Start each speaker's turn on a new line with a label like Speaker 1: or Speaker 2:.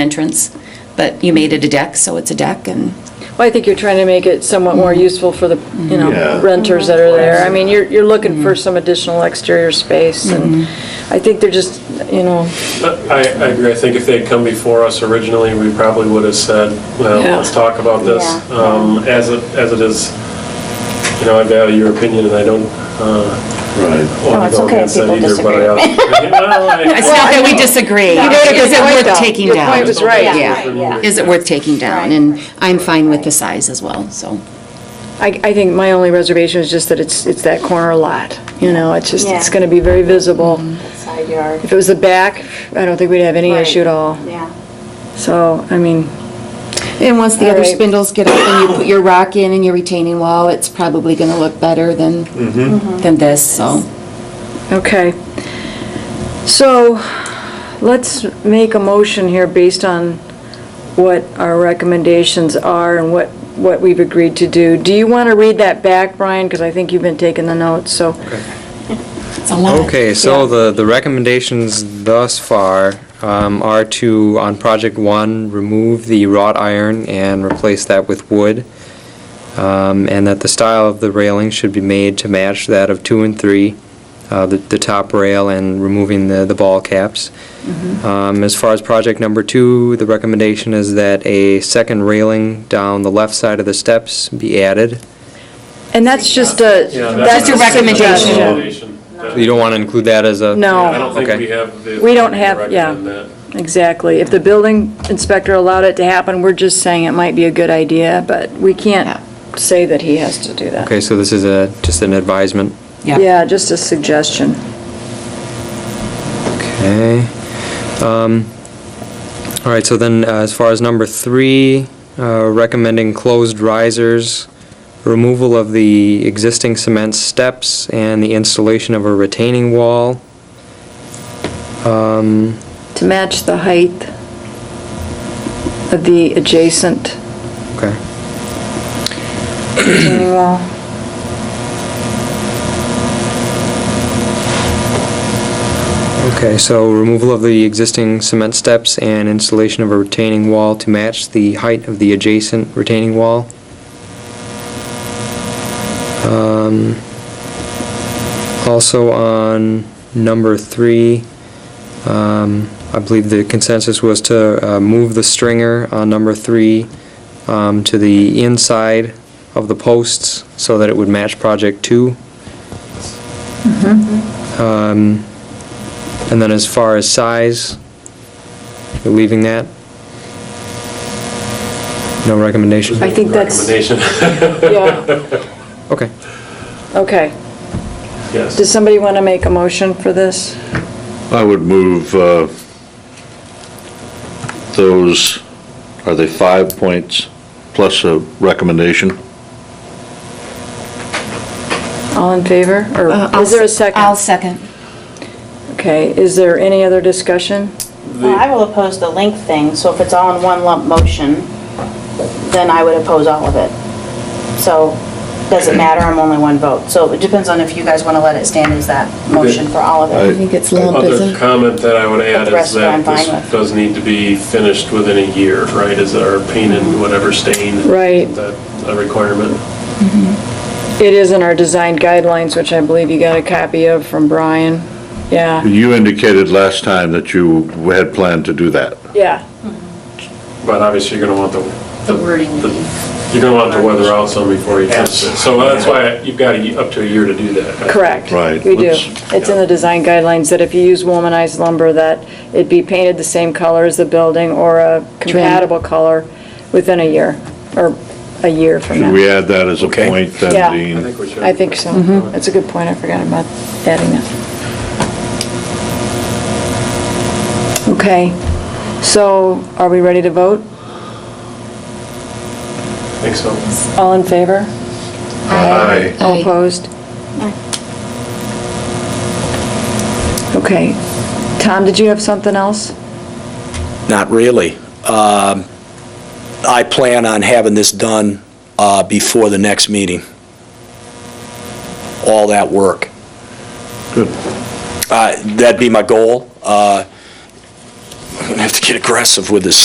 Speaker 1: entrance, but you made it a deck, so it's a deck, and
Speaker 2: Well, I think you're trying to make it somewhat more
Speaker 3: Mm-hmm.
Speaker 2: useful for the, you know,
Speaker 4: Yeah.
Speaker 2: renters that are there. I mean, you're, you're looking
Speaker 3: Mm-hmm.
Speaker 2: for some additional exterior space, and I think they're just, you know,
Speaker 5: I, I agree. I think if they'd come before us originally, we probably would have said, well,
Speaker 2: Yeah.
Speaker 5: let's talk about this.
Speaker 3: Yeah.
Speaker 5: Um, As it, as it is, you know, I value your opinion and I don't uh,
Speaker 4: Right.
Speaker 3: No,
Speaker 5: want
Speaker 3: it's
Speaker 5: to go
Speaker 3: okay if
Speaker 5: against that
Speaker 3: people
Speaker 5: either, but I...
Speaker 3: disagree.
Speaker 5: Well,
Speaker 1: it's
Speaker 5: I-
Speaker 1: not that we disagree. Is it worth taking
Speaker 2: Your
Speaker 1: down?
Speaker 2: point was right.
Speaker 1: Yeah.
Speaker 3: Yeah.
Speaker 1: Is it worth taking down?
Speaker 3: Right.
Speaker 1: And I'm fine with the size as well, so.
Speaker 2: I, I think my only reservation is just that it's, it's that corner lot, you know, it's just, it's
Speaker 3: Yeah. Mm-hmm.
Speaker 2: gonna be very visible.
Speaker 3: Side yard.
Speaker 2: If it was the back, I don't think we'd have any
Speaker 3: Right.
Speaker 2: issue at all.
Speaker 3: Yeah.
Speaker 2: So, I mean,
Speaker 6: And once the other
Speaker 2: Alright.
Speaker 6: spindles get up and you put your rock in and your retaining wall, it's probably gonna look better than,
Speaker 1: Than this, so.
Speaker 2: okay. So, let's make a motion here based on what our recommendations are and what, what we've agreed to do. Do you want to read that back, Brian? Because I think you've been taking the notes, so.
Speaker 1: It's a lot.
Speaker 7: Okay, so the, the recommendations thus far um, are to, on project one, remove the wrought iron and replace that with wood, Um, and that the style of the railing should be made to match that of two and three, uh, the, the top rail and removing the, the ball caps. Um, As far as project number two, the recommendation is that a second railing down the left side of the steps be added.
Speaker 2: And that's just a,
Speaker 5: Yeah,
Speaker 2: that's a recommendation.
Speaker 5: recommendation.
Speaker 7: You don't want to include that as a...
Speaker 2: No.
Speaker 5: I don't think
Speaker 7: Okay.
Speaker 5: we have the...
Speaker 2: We don't
Speaker 5: authority to
Speaker 2: have- yeah.
Speaker 5: recommend that.
Speaker 2: Exactly. If the building inspector allowed it to happen, we're just saying it might be a good idea, but we can't say that he has to do that.
Speaker 7: Okay, so this is a, just an advisement.
Speaker 1: Yeah.
Speaker 2: Yeah, just a suggestion.
Speaker 7: Okay. Um, All right, so then, uh, as far as number three, uh, recommending closed risers, removal of the existing cement steps, and the installation of a retaining wall. Um,
Speaker 2: To match the height of the adjacent
Speaker 7: Okay.
Speaker 2: retaining wall.
Speaker 7: Okay, so removal of the existing cement steps and installation of a retaining wall to match the height of the adjacent retaining wall. Um, Also on number three, um, I believe the consensus was to uh, move the stringer on number three um, to the inside of the posts so that it would match project two.
Speaker 2: Mm-hmm.
Speaker 7: Um, and then as far as size, you're leaving that? No recommendation?
Speaker 2: I think that's,
Speaker 5: Recommendation,
Speaker 2: yeah,
Speaker 7: Okay.
Speaker 2: okay.
Speaker 5: yes.
Speaker 2: Does somebody want to make a motion for this?
Speaker 4: I would move uh, those, are they five points plus a recommendation?
Speaker 2: All in favor?
Speaker 1: Uh,
Speaker 2: Or
Speaker 1: I'll
Speaker 2: is there a
Speaker 1: s- I'll
Speaker 2: second?
Speaker 1: second.
Speaker 2: Okay, is there any other discussion?
Speaker 3: Well, I will oppose the link thing, so if it's all in one lump motion, then I would oppose all of it. So, doesn't matter, I'm only one vote. So it depends on if you guys want to let it stand as that motion for all of
Speaker 6: I
Speaker 3: it.
Speaker 6: think it's lump,
Speaker 5: Other
Speaker 6: isn't it?
Speaker 5: comment that I would add
Speaker 3: the rest
Speaker 5: is that
Speaker 3: I'm fine
Speaker 5: this
Speaker 3: with.
Speaker 5: does need to be finished within a year, right? Is our paint and whatever stain.
Speaker 2: Right.
Speaker 5: Is that a requirement?
Speaker 2: It is in our design guidelines, which I believe you got a copy of from Brian. Yeah,
Speaker 4: You indicated last time that you had planned to do that.
Speaker 2: yeah.
Speaker 5: But obviously, you're gonna want the. The wording. You're gonna want the weather out some before you test it. So that's why you've got a- up to a year to do that. I think.
Speaker 2: Correct.
Speaker 4: Right.
Speaker 2: We do.
Speaker 4: Let's-
Speaker 2: It's in the design guidelines that if you use womanized lumber, that it be painted the same color as the building or a compatible color within a year, or a year from
Speaker 4: Should we
Speaker 2: now.
Speaker 4: add that as a
Speaker 7: Okay.
Speaker 4: point
Speaker 2: Yeah.
Speaker 4: then,
Speaker 5: I
Speaker 4: Dean?
Speaker 5: think we should.
Speaker 2: I think so. That's a good point. I forgot about adding that. Okay, so are we ready to vote?
Speaker 5: I think so.
Speaker 2: All in favor?
Speaker 4: Aye.
Speaker 2: All
Speaker 6: Aye.
Speaker 2: opposed? Okay. Tom, did you have something else?
Speaker 8: Not really. Um, I plan on having this done uh, before the next meeting. All that work.
Speaker 4: Good.
Speaker 8: Uh, That'd be my goal. Uh, I'm going to have to get aggressive with this